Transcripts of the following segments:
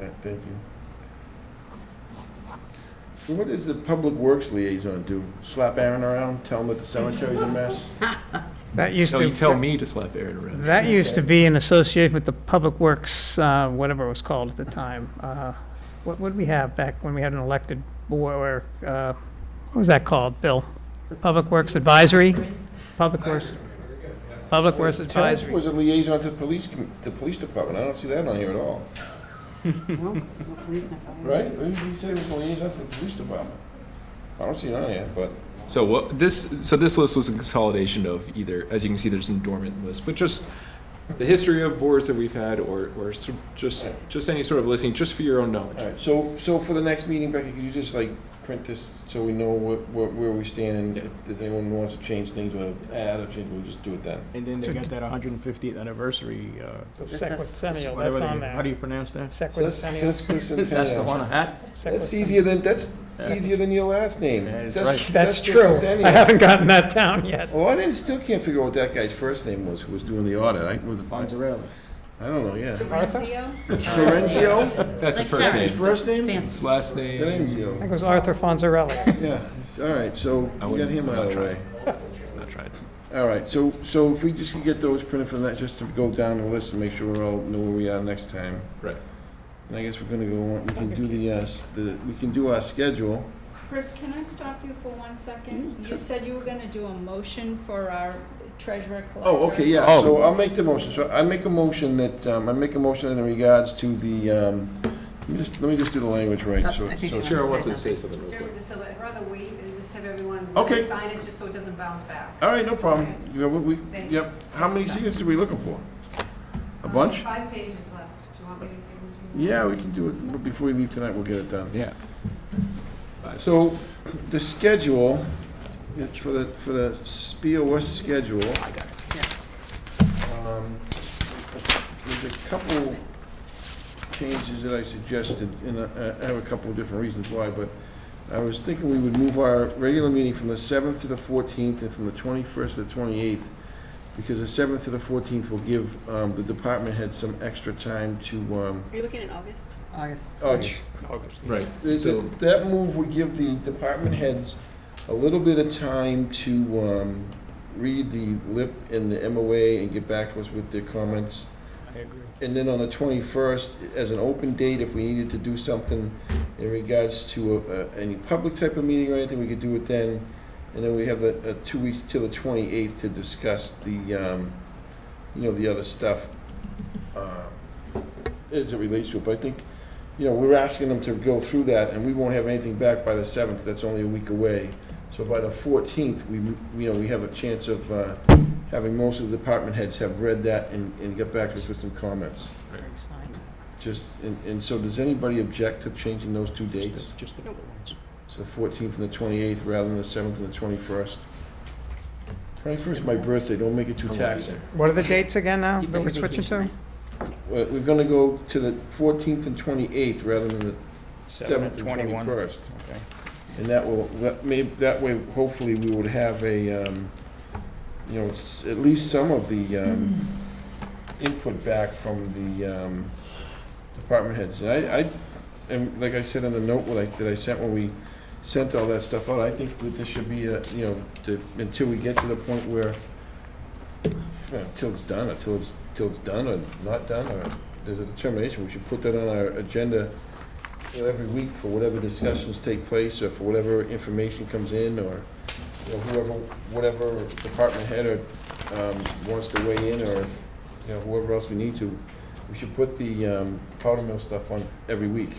right, thank you. So what does the public works liaison do? Slap Aaron around, tell him that the cemetery's a mess? That used No, you to, tell me to slap Aaron around. that used to be in association with the Public Works, uh, whatever it was called at the time. Uh, What would we have back when we had an elected board, uh, what was that called, Bill? Public Works Advisory? Public Works, Public Works Terrence Advisory. was a liaison to the police, com- the police department, I don't see that on here at all, No, no police, no fire. right? He he said he was a liaison to the police department. I don't see it on here, but So what, this, so this list was a consolidation of either, as you can see, there's a dormant list, but just the history of boards that we've had or, or s- just, just any sort of listing, just for your own All knowledge. right, so, so for the next meeting, Becky, could you just like print this so we know what, what, where we stand and Yeah. if there's anyone who wants to change things or add or change, we'll just do it then. And then they got that 150th anniversary, uh, Sequicennial, that's whatever they, on how do there. you pronounce that? Sequicennial. That's the one I Sesquicentennial. had. That's sequicennial. easier than, that's easier than your last name. Yeah, it's Ses- right. That's true. sesquicentennial. I haven't gotten that down yet. Oh, I didn't, still can't figure out what that guy's first name was who was doing the audit. I was, Bonzarelli. I don't know, yeah. Terenzio? Terenzio? That's his Like first His name. first name? Fancy. His last name, I Terenzio. think it was Arthur Fonzarelli. Yeah, all right, so I we got wouldn't- him I'm out of not the way. trying. not tried. All right, so, so if we just could get those printed for that, just to go down the list and make sure we're all know where we are next time. Right. And I guess we're gonna go, on we can do the, uh, s- the, we can do our schedule. Chris, can I stop you for one second? You said you were gonna do a motion for our treasurer collector. Oh, okay, yeah, Oh. so I'll make the motion, so I make a motion that, um, I make a motion in regards to the, um, let me just, let me just do the language right, Oh, so. I think so- she Cheryl wants wants to to say say something real quick. Chairman, just I'd rather wait and just have everyone Okay. sign it, just so it doesn't bounce back. All right, no problem, yeah, we, we- Thank you. yep, how many signatures are we looking for? A bunch? Five pages left. Do you want me to give them to you? Yeah, we can do it, but before we leave tonight, we'll get it done. Yeah. So the schedule, it's for the, for the SPOS schedule. Oh, I got There's a couple changes that I suggested, and I I have a couple of different reasons why, but I was thinking we would move our regular meeting from the 7th to the 14th and from the 21st to the 28th, because the 7th to the 14th will give um, the department head some extra time to, um, Are you looking in August? August. oh, Right. Th- So- th- That move would give the department heads a little bit of time to um, read the LIP and the MOA and get back to us with their comments. I agree. And then on the 21st, as an open date, if we needed to do something in regards to a- a- any public type of meeting or anything, we could do it then. And then we have a a two weeks till the 28th to discuss the, um, you know, the other stuff uh, as it relates to it. But I think, you know, we're asking them to go through that, and we won't have anything back by the 7th. That's only a week away. So by the 14th, we, you know, we have a chance of uh, having most of the department heads have read that and and get back to us with some comments. Just, and, and so does anybody object to changing those two dates? Just the number ones. So fourteenth and the twenty-eighth rather than the seventh and the twenty-first? Twenty-first is my birthday, don't make it too I won't be taxing. What are the dates again now that we're switching to? We're, we're gonna go to the fourteenth and twenty-eighth rather than the seventh and twenty-first. Okay. And that will, that may, that way, hopefully, we would have a, um, you know, s- at least some of the, um, input back from the, um, department heads. And I, I, and like I said in the note that I, that I sent when we sent all that stuff out, I think that this should be a, you know, to, until we get to the point where, until it's done, until it's, till it's done or not done, or there's a determination, we should put that on our agenda you know, every week for whatever discussions take place, or for whatever information comes in, or you know, whoever, whatever department head or, um, wants to weigh in, or, if, you know, whoever else we need to, we should put the, um, powder mill stuff on every week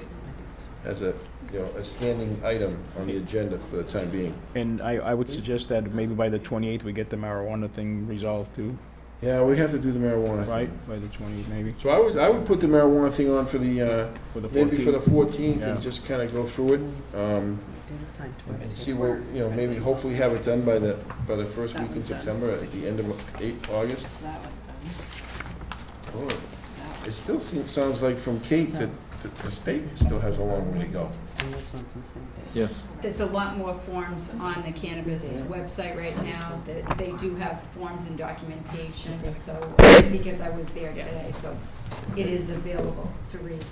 as a, you know, a standing item on the agenda for the time being. And I, I would suggest that maybe by the 28th, we get the marijuana thing resolved too, Yeah, we have to do the marijuana right? thing. By the 28th, maybe, So I would, I would put the marijuana thing on for the, uh, for the 14th. maybe for the fourteenth Yeah. and just kinda go through it, um, David signed and twice. see where, you know, maybe hopefully have it done by the, by the first week in September, at the end of eight, August. That one's done. Oh, It still seems, sounds like from Kate that that the state still has a long way to go. And this one's missing a date. Yes. There's a lot more forms on the cannabis website right now. that They do have forms and documentation, so, because I was there today, so it is available to read.